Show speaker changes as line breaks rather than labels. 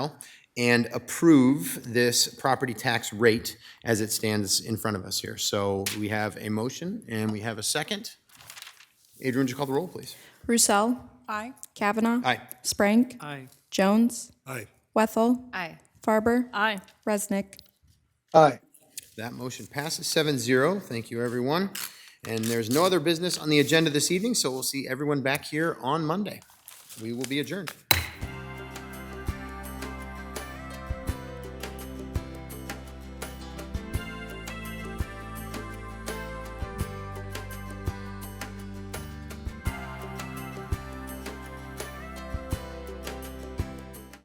and approve this property tax rate as it stands in front of us here. So we have a motion and we have a second. Adrian, would you call the roll, please?
Roussel.
Aye.
Kavanaugh.
Aye.
Sprank.
Aye.
Jones.
Aye.
Wethel.
Aye.
Farber.
Aye.
Resnick.
Aye.
That motion passes 7-0. Thank you, everyone. And there's no other business on the agenda this evening, so we'll see everyone back here on Monday. We will be adjourned.